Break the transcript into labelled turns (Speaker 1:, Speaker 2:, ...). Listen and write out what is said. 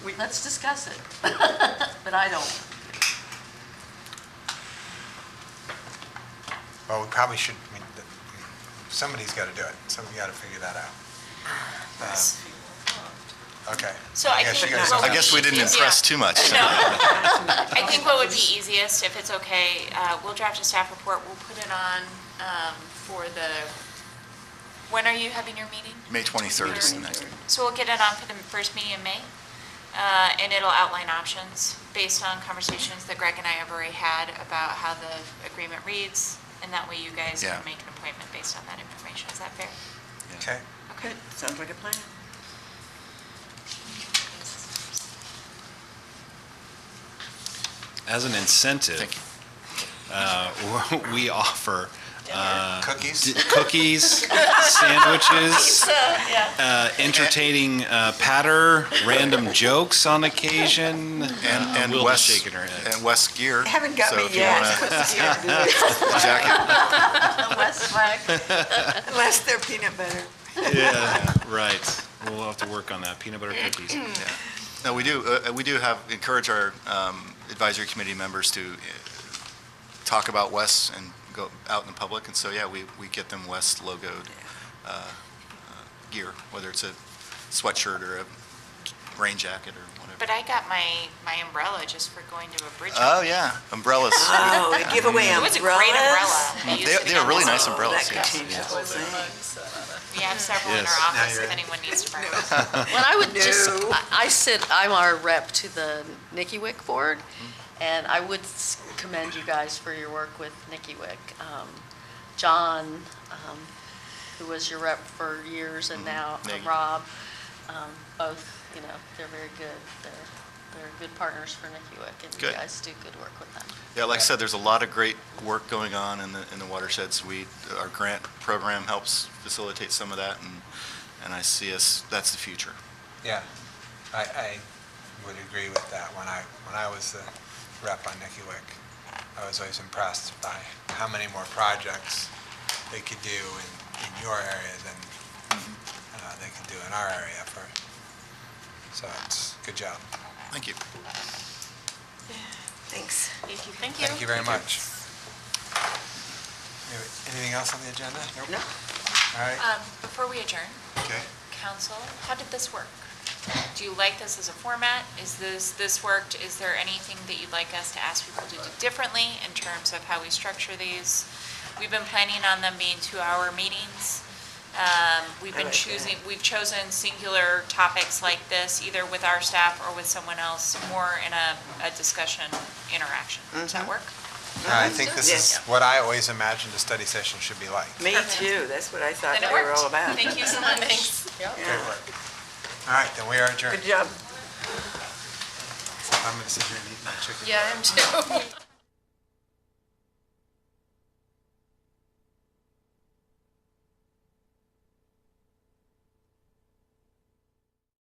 Speaker 1: let's discuss it. But I don't.
Speaker 2: Well, we probably should, I mean, th- somebody's got to do it. Somebody got to figure that out. Uh, Okay.
Speaker 3: So I
Speaker 2: guess
Speaker 3: think-
Speaker 2: you guys
Speaker 3: well,
Speaker 2: don't-
Speaker 4: I guess we didn't
Speaker 3: Yeah.
Speaker 4: impress too much.
Speaker 3: No. I think what would be easiest, if it's okay, uh, we'll draft a staff report, we'll put it on um, for the, when are you having your meeting?
Speaker 4: May 23rd is the next.
Speaker 3: So we'll get it on for the first meeting in May, uh, and it'll outline options based on conversations that Greg and I have already had about how the agreement reads, and that way you guys
Speaker 4: Yeah.
Speaker 3: can make an appointment based on that information. Is that fair?
Speaker 2: Okay.
Speaker 5: Good, sounds like a plan.
Speaker 6: As an incentive,
Speaker 4: Thank you.
Speaker 6: uh, we offer uh, d-
Speaker 2: Cookies?
Speaker 6: cookies, sandwiches, uh, entertaining uh, patter, random jokes on occasion. Uh,
Speaker 4: And, and
Speaker 6: Will is
Speaker 4: Wes,
Speaker 6: shaking her head.
Speaker 4: and Wes Gear.
Speaker 5: They haven't got
Speaker 4: so
Speaker 5: me
Speaker 4: if you
Speaker 5: yet.
Speaker 4: wanna-
Speaker 5: Yeah.
Speaker 4: Jack,
Speaker 1: West Flag,
Speaker 5: Unless they're peanut butter.
Speaker 6: Yeah, right. We'll have to work on that, peanut butter cookies.
Speaker 4: no, we do, uh, we do have, encourage our um, advisory committee members to uh, talk about Wes and go out in the public, and so, yeah, we, we get them Wes logoed uh, uh, gear, whether it's a sweatshirt or a rain jacket or whatever.
Speaker 3: But I got my, my umbrella just for going to a bridge.
Speaker 4: Oh, yeah, umbrellas.
Speaker 5: Oh, they give away
Speaker 3: It
Speaker 5: umbrellas.
Speaker 3: was a great umbrella. They used
Speaker 4: They-
Speaker 3: to be
Speaker 4: they are
Speaker 3: on
Speaker 4: really
Speaker 3: the-
Speaker 4: nice umbrellas,
Speaker 5: That could
Speaker 4: yes.
Speaker 5: change the whole thing.
Speaker 3: We have several in
Speaker 6: Yes.
Speaker 3: our office
Speaker 2: you're
Speaker 3: if
Speaker 2: in.
Speaker 3: anyone needs to borrow. them.
Speaker 7: Well, I would just,
Speaker 5: No.
Speaker 7: I- I sit, I'm our rep to the Nikki Wick Board, and I would s- commend you guys for your work with Nikki Wick. Um, John, um, who was your rep for years,
Speaker 2: Mm-hmm.
Speaker 7: and now uh,
Speaker 4: Nikki.
Speaker 7: Rob, um, both, you know, they're very good. They're, they're good partners for Nikki Wick, and you
Speaker 4: Good.
Speaker 7: guys do good work with them.
Speaker 4: Yeah, like I said, there's a lot of great work going on in the, in the watersheds. We, our grant program helps facilitate some of that, and, and I see us, that's the future.
Speaker 2: Yeah. I, I would agree with that. When I, when I was the rep on Nicky Wick, I was always impressed by how many more projects they could do in, in your area than
Speaker 3: Mm-hmm.
Speaker 2: uh, they could do in our area for, so it's, good job.
Speaker 4: Thank you.
Speaker 5: Thanks.
Speaker 3: Thank you.
Speaker 2: Thank you very much. Anything else on the agenda? Nope.
Speaker 5: No.
Speaker 2: All right.
Speaker 3: Um, Before we adjourn,
Speaker 2: Okay.
Speaker 3: council, how did this work? Do you like this as a format? Is this, this worked? Is there anything that you'd like us to ask people to do differently in terms of how we structure these? We've been planning on them being two-hour meetings. Um, We've
Speaker 5: I
Speaker 3: been
Speaker 5: like that.
Speaker 3: choosing, we've chosen singular topics like this, either with our staff or with someone else, more in a, a discussion interaction. Does
Speaker 5: Mm-hmm.
Speaker 3: that work?
Speaker 2: I think this is
Speaker 5: Yes.
Speaker 2: what I always imagined a study session should be like.
Speaker 5: Me too, that's what I thought
Speaker 3: Then
Speaker 5: they
Speaker 3: it
Speaker 5: were
Speaker 3: worked.
Speaker 5: all about.
Speaker 3: Thank you so much.
Speaker 2: Great
Speaker 5: Yeah.
Speaker 2: work. All right, then we are adjourned.
Speaker 5: Good
Speaker 2: I'm
Speaker 5: job.
Speaker 2: going to sit here and eat my chicken.
Speaker 7: Yeah, I am too.